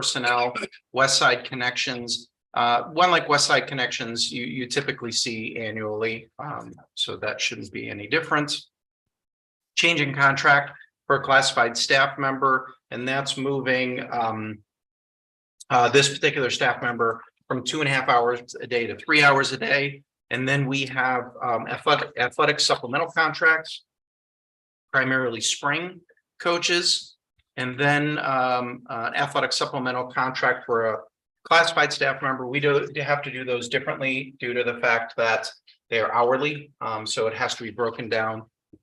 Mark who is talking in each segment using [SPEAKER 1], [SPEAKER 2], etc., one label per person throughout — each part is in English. [SPEAKER 1] personnel, West Side Connections. Uh, one like West Side Connections, you, you typically see annually, um, so that shouldn't be any difference. Changing contract for a classified staff member, and that's moving, um, uh, this particular staff member from two and a half hours a day to three hours a day. And then we have, um, athletic, athletic supplemental contracts, primarily spring coaches. And then um uh, athletic supplemental contract for a classified staff member, we do they have to do those differently due to the fact that they are hourly, um so it has to be broken down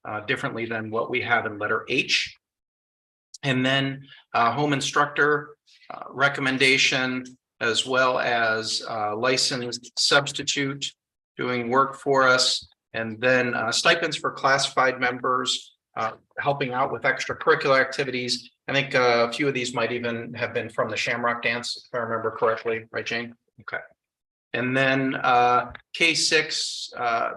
[SPEAKER 1] uh differently than what we have in letter H. And then uh home instructor uh, recommendation as well as uh licensed substitute doing work for us. And then uh, stipends for classified members, uh, helping out with extracurricular activities. I think uh, a few of these might even have been from the Shamrock Dance, if I remember correctly, right, Jane? Okay. And then uh, K six, uh,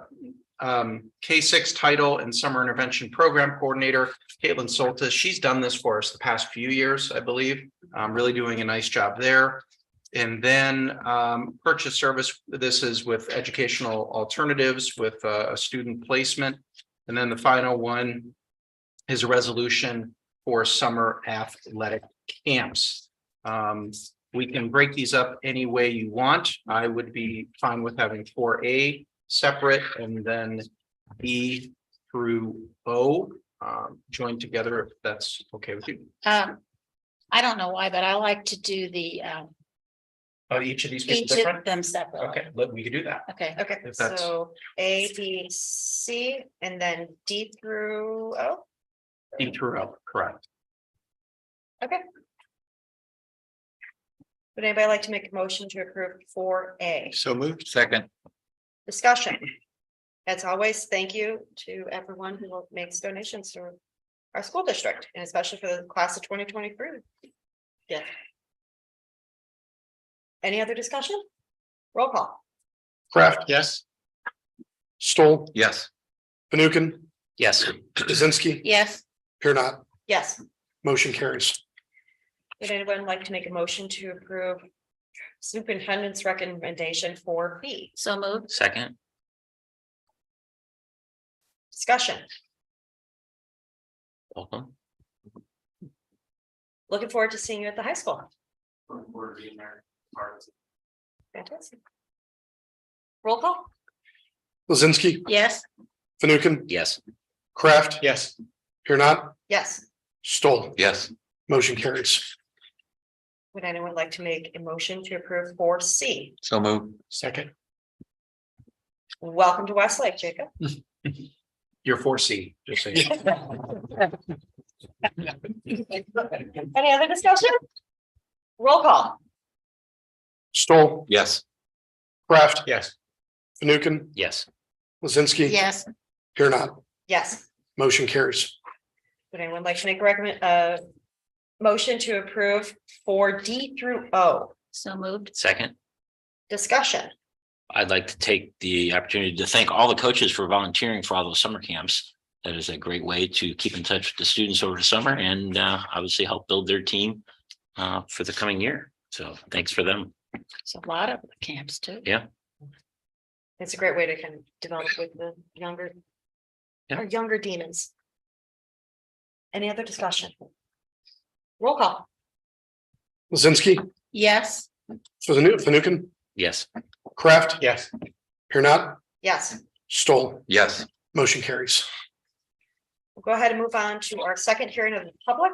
[SPEAKER 1] um, K six title and summer intervention program coordinator, Caitlin Soltis, she's done this for us the past few years, I believe. Um, Really doing a nice job there. And then um, purchase service, this is with educational alternatives with uh, a student placement. And then the final one his resolution for summer athletic camps. Um, we can break these up any way you want. I would be fine with having four A separate and then B through O um, joined together if that's okay with you.
[SPEAKER 2] Um, I don't know why, but I like to do the, um,
[SPEAKER 1] Uh, each of these
[SPEAKER 2] each
[SPEAKER 1] gets different.
[SPEAKER 2] of them separately.
[SPEAKER 1] Okay, let- we could do that.
[SPEAKER 2] Okay,
[SPEAKER 3] Okay,
[SPEAKER 1] If that's-
[SPEAKER 3] so A, B, C, and then D through oh, O.
[SPEAKER 1] B through O, correct.
[SPEAKER 3] Would anybody like to make a motion to approve four A?
[SPEAKER 4] So moved. Second.
[SPEAKER 3] Discussion. As always, thank you to everyone who makes donations to our school district, and especially for the class of twenty twenty-three. Yeah. Any other discussion? Roll call.
[SPEAKER 5] Kraft,
[SPEAKER 4] Yes.
[SPEAKER 5] Stoll,
[SPEAKER 4] Yes.
[SPEAKER 5] Fanukin,
[SPEAKER 1] Yes.
[SPEAKER 5] Lizinski,
[SPEAKER 2] yes,
[SPEAKER 5] here not,
[SPEAKER 3] Yes.
[SPEAKER 5] motion carries.
[SPEAKER 3] Would anyone like to make a motion to approve superintendent's recommendation for B?
[SPEAKER 2] so moved,
[SPEAKER 4] Second.
[SPEAKER 3] Discussion.
[SPEAKER 4] Welcome.
[SPEAKER 3] Looking forward to seeing you at the high school. Fantastic. Roll call?
[SPEAKER 5] Lizinski,
[SPEAKER 2] yes,
[SPEAKER 5] Fanukin,
[SPEAKER 4] Yes.
[SPEAKER 5] Kraft,
[SPEAKER 4] Yes.
[SPEAKER 5] here not,
[SPEAKER 3] Yes.
[SPEAKER 5] Stoll,
[SPEAKER 4] Yes.
[SPEAKER 5] motion carries.
[SPEAKER 3] Would anyone like to make a motion to approve four C?
[SPEAKER 4] So moved.
[SPEAKER 5] Second.
[SPEAKER 3] Welcome to Westlake, Jacob.
[SPEAKER 1] Your four C, just saying.
[SPEAKER 3] Any other discussion? Roll call?
[SPEAKER 5] Stoll,
[SPEAKER 4] Yes.
[SPEAKER 5] Kraft,
[SPEAKER 1] Yes.
[SPEAKER 5] Fanukin,
[SPEAKER 4] Yes.
[SPEAKER 5] Lizinski,
[SPEAKER 2] yes,
[SPEAKER 5] here not,
[SPEAKER 3] Yes.
[SPEAKER 5] motion carries.
[SPEAKER 3] Would anyone like to make a recommend, uh, motion to approve four D through O?
[SPEAKER 2] so moved,
[SPEAKER 6] Second,
[SPEAKER 3] Discussion.
[SPEAKER 6] I'd like to take the opportunity to thank all the coaches for volunteering for all those summer camps. That is a great way to keep in touch with the students over the summer and uh, obviously help build their team uh, for the coming year. So thanks for them.
[SPEAKER 2] it's a lot of camps too.
[SPEAKER 3] It's a great way to kind of develop with the younger.
[SPEAKER 6] Yeah.
[SPEAKER 3] Or younger demons. Any other discussion? Roll call?
[SPEAKER 5] Lizinski,
[SPEAKER 2] Yes,
[SPEAKER 5] Fanu- Fanukin,
[SPEAKER 6] Yes,
[SPEAKER 5] Kraft,
[SPEAKER 1] Yes.
[SPEAKER 5] here not,
[SPEAKER 3] Yes.
[SPEAKER 5] Stoll,
[SPEAKER 4] Yes.
[SPEAKER 5] motion carries.
[SPEAKER 3] We'll Go ahead and move on to our second hearing of the public.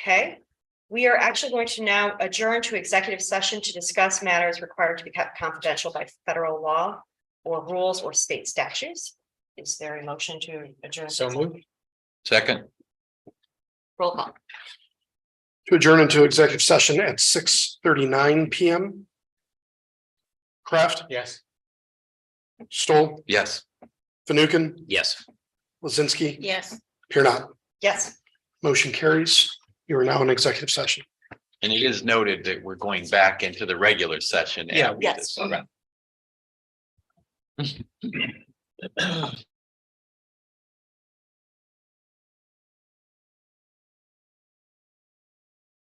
[SPEAKER 3] Okay, we are actually going to now adjourn to executive session to discuss matters required to be kept confidential by federal law or rules or state statutes. Is there a motion to adjourn?
[SPEAKER 1] So moved.
[SPEAKER 4] Second.
[SPEAKER 3] Roll call.
[SPEAKER 5] To adjourn into executive session at six thirty-nine PM. Kraft,
[SPEAKER 1] Yes.
[SPEAKER 5] Stoll,
[SPEAKER 4] Yes.
[SPEAKER 5] Fanukin,
[SPEAKER 6] yes.
[SPEAKER 5] Lizinski,
[SPEAKER 2] yes.
[SPEAKER 5] here not.
[SPEAKER 3] Yes,
[SPEAKER 5] Motion carries. You are now in executive session.
[SPEAKER 4] And it is noted that we're going back into the regular session.
[SPEAKER 1] Yeah.
[SPEAKER 4] after
[SPEAKER 3] Yes.
[SPEAKER 4] this.